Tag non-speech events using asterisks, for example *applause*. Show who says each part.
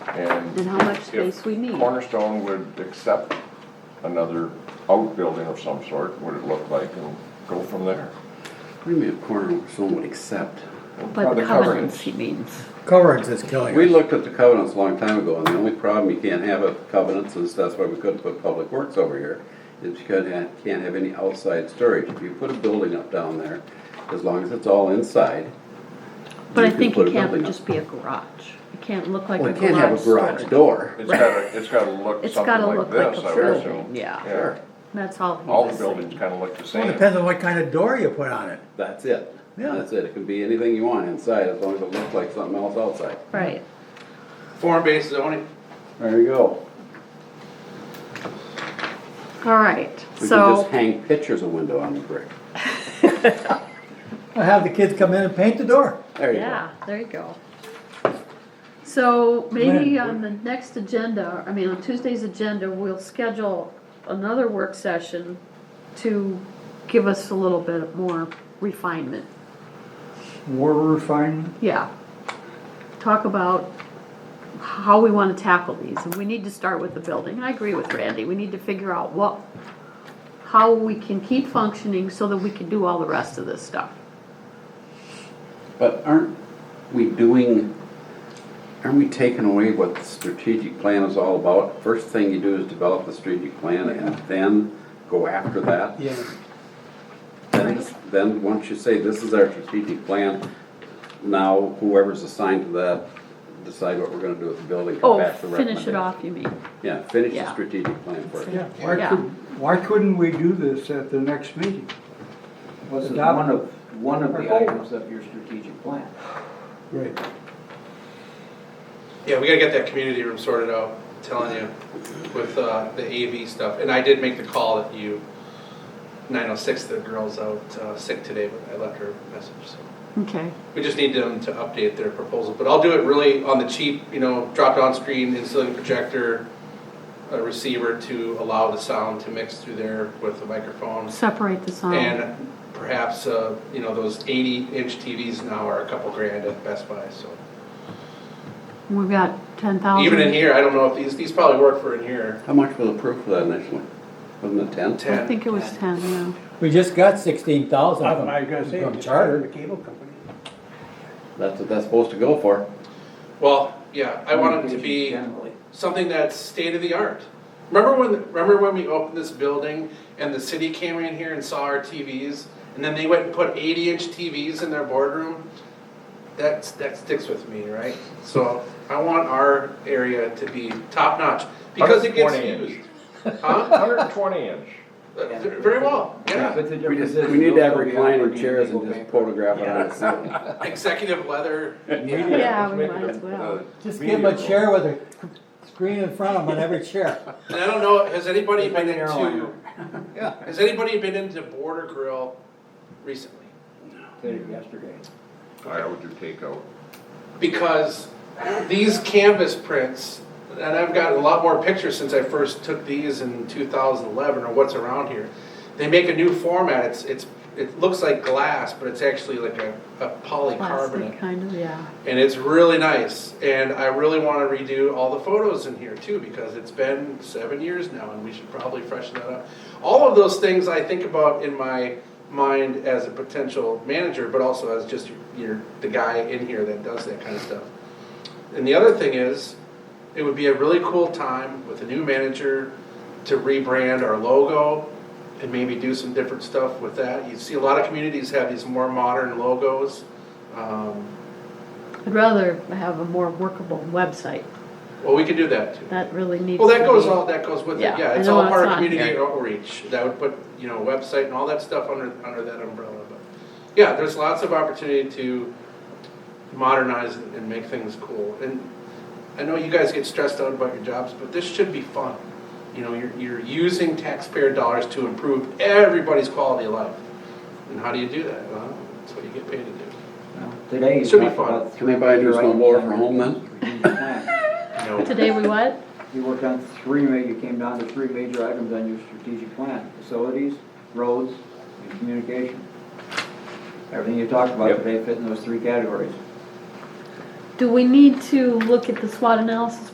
Speaker 1: And
Speaker 2: And how much
Speaker 1: if
Speaker 2: space we need.
Speaker 1: Cornerstone would accept another outbuilding of some sort, what it looked like, and go from there.
Speaker 3: What do you mean a corner someone would accept?
Speaker 1: Now,
Speaker 2: But the covenants,
Speaker 1: covenants.
Speaker 2: he means.
Speaker 4: Coverage is killing
Speaker 3: We
Speaker 4: us.
Speaker 3: looked at the covenants a long time ago, and the only problem you can't have with covenants is that's why we couldn't put public works over here, is you can't have, can't have any outside storage. If you put a building up down there, as long as it's all inside.
Speaker 2: But I
Speaker 3: can
Speaker 2: think
Speaker 3: put
Speaker 2: it
Speaker 3: a
Speaker 2: can't
Speaker 3: building up.
Speaker 2: just be a garage. It can't look like
Speaker 3: Well,
Speaker 2: a
Speaker 3: you can't have
Speaker 2: garage
Speaker 3: a garage
Speaker 2: store.
Speaker 3: door.
Speaker 1: It's gotta, it's gotta look
Speaker 2: It's
Speaker 1: something
Speaker 2: gotta
Speaker 1: like
Speaker 2: look like
Speaker 1: this,
Speaker 2: a
Speaker 1: I would
Speaker 2: building,
Speaker 1: assume.
Speaker 2: yeah.
Speaker 3: Sure,
Speaker 2: That's all he
Speaker 1: All the
Speaker 2: was
Speaker 1: buildings
Speaker 2: saying.
Speaker 1: kinda look the same.
Speaker 4: Depends on what kind of door you put on it.
Speaker 3: that's it.
Speaker 4: Yeah.
Speaker 3: That's it. It can be anything you want inside, as long as it looks like something else outside.
Speaker 2: Right.
Speaker 5: Form-based zoning,
Speaker 3: There you go.
Speaker 2: All right,
Speaker 3: We can
Speaker 2: so,
Speaker 3: just hang pictures of window on the brick.
Speaker 4: I have the kids come in and paint the door.
Speaker 3: There you go.
Speaker 2: yeah, there you go. So maybe on the next agenda, I mean, on Tuesday's agenda, we'll schedule another work session to give us a little bit more refinement.
Speaker 6: More refinement?
Speaker 2: Yeah. Talk about how we want to tackle these, and we need to start with the building. I agree with Randy, we need to figure out what, how we can keep functioning so that we can do all the rest of this stuff.
Speaker 3: But aren't we doing, aren't we taking away what the strategic plan is all about? First thing you do is develop the strategic plan and then go after that?
Speaker 6: Yeah.
Speaker 3: Then, then, once you say, this is our strategic plan, now whoever's assigned to that, decide what we're gonna do with the building, come
Speaker 2: Oh,
Speaker 3: back to
Speaker 2: finish it
Speaker 3: recommendation.
Speaker 2: off, you mean?
Speaker 3: Yeah, finish
Speaker 2: Yeah.
Speaker 3: the strategic plan first.
Speaker 6: Yeah, why
Speaker 2: Yeah.
Speaker 6: could, why couldn't we do this at the next meeting?
Speaker 5: was it
Speaker 6: Adopt-
Speaker 5: one of, one of
Speaker 6: Or
Speaker 5: the
Speaker 6: hold.
Speaker 5: items of your strategic plan?
Speaker 6: Right.
Speaker 7: Yeah, we gotta get that community room sorted out, I'm telling you, with uh, the AV stuff. And I did make the call that you, 906, the girl's out uh, sick today, but I left her a message, so.
Speaker 2: Okay,
Speaker 7: We just need them to update their proposal, but I'll do it really on the cheap, you know, drop-down screen, installing projector, a receiver to allow the sound to mix through there with the microphone.
Speaker 2: separate the sound.
Speaker 7: And perhaps, uh, you know, those 80-inch TVs now are a couple grand at Best Buy, so.
Speaker 2: We've got ten thousand.
Speaker 7: Even in here, I don't know if these, these probably work for in here.
Speaker 3: How much was approved for that initially? Wasn't it ten?
Speaker 2: I
Speaker 7: Ten.
Speaker 2: think it was ten, yeah.
Speaker 4: We just got sixteen thousand
Speaker 6: I was gonna
Speaker 4: from,
Speaker 6: say,
Speaker 4: from
Speaker 6: just hire
Speaker 4: charter.
Speaker 6: the cable company.
Speaker 3: That's what that's supposed to go for.
Speaker 7: Well, yeah, I want them to be
Speaker 5: Generally.
Speaker 7: something that's state of the art. Remember when, remember when we opened this building and the city came in here and saw our TVs? And then they went and put eighty inch TVs in their boardroom? That's, that sticks with me, right? So I want our area to be top notch because it gets
Speaker 1: 120 inch.
Speaker 7: used. Huh?
Speaker 1: Hundred and twenty inch.
Speaker 7: Very well, yeah.
Speaker 5: But the
Speaker 3: We
Speaker 5: difference
Speaker 3: just,
Speaker 5: is
Speaker 3: we need to have
Speaker 5: they'll be
Speaker 3: reclining
Speaker 5: on Airbnb,
Speaker 3: chairs and
Speaker 5: go
Speaker 3: just
Speaker 5: bankrupt.
Speaker 3: photograph it on a ceiling.
Speaker 7: Executive leather,
Speaker 1: Media,
Speaker 2: Yeah,
Speaker 1: let's
Speaker 2: we
Speaker 1: make it
Speaker 2: might
Speaker 1: a-
Speaker 2: as well.
Speaker 1: a
Speaker 4: Just
Speaker 1: media
Speaker 4: give them a
Speaker 1: room.
Speaker 4: chair with a screen in front of them on every
Speaker 6: *laughs*
Speaker 4: chair.
Speaker 7: And I don't know, has anybody
Speaker 5: It's like
Speaker 7: been
Speaker 5: an
Speaker 7: into,
Speaker 5: airliner.
Speaker 7: *laughs*
Speaker 3: Yeah.
Speaker 7: has anybody been into Border Grill recently?
Speaker 5: Did it Yesterday.
Speaker 1: I would do takeout.
Speaker 7: Because these canvas prints, and I've gotten a lot more pictures since I first took these in two thousand eleven or what's around here. They make a new format, it's, it's, it looks like glass, but it's actually like a, a
Speaker 2: Plastic,
Speaker 7: polycarbonate.
Speaker 2: kind of, yeah.
Speaker 7: And it's really nice, and I really wanna redo all the photos in here too, because it's been seven years now, and we should probably freshen that up. All of those things I think about in my mind as a potential manager, but also as just your, the guy in here that does that kind of stuff. And the other thing is, it would be a really cool time with a new manager to rebrand our logo and maybe do some different stuff with that. You see a lot of communities have these more modern logos. Um,
Speaker 2: I'd rather have a more workable website.
Speaker 7: Well, we could do that too.
Speaker 2: That really needs to
Speaker 7: Well,
Speaker 2: be.
Speaker 7: that goes all, that goes with it,
Speaker 2: Yeah,
Speaker 7: yeah,
Speaker 2: I
Speaker 7: it's
Speaker 2: know
Speaker 7: all
Speaker 2: it's
Speaker 7: part of
Speaker 2: on
Speaker 7: community
Speaker 2: here.
Speaker 7: outreach, that would put, you know, website and all that stuff under, under that umbrella, but. Yeah, there's lots of opportunity to modernize and and make things cool, and I know you guys get stressed out about your jobs, but this should be fun. You know, you're, you're using taxpayer dollars to improve everybody's quality of life, and how do you do that? Well, that's what you get paid to do.
Speaker 5: Well, Today you
Speaker 7: Should be
Speaker 5: talked
Speaker 7: fun.
Speaker 5: about.
Speaker 3: Can they buy a new
Speaker 5: major items
Speaker 3: snowblower
Speaker 5: on
Speaker 3: for
Speaker 5: your
Speaker 3: home then?
Speaker 5: strategic plan.
Speaker 2: Today we what?
Speaker 5: You worked on three, ma- you came down to three major items on your strategic plan, facilities, roads, and communication. Everything you talked about
Speaker 3: Yep.
Speaker 5: today fit in those three categories.
Speaker 2: Do we need to look at the SWOT analysis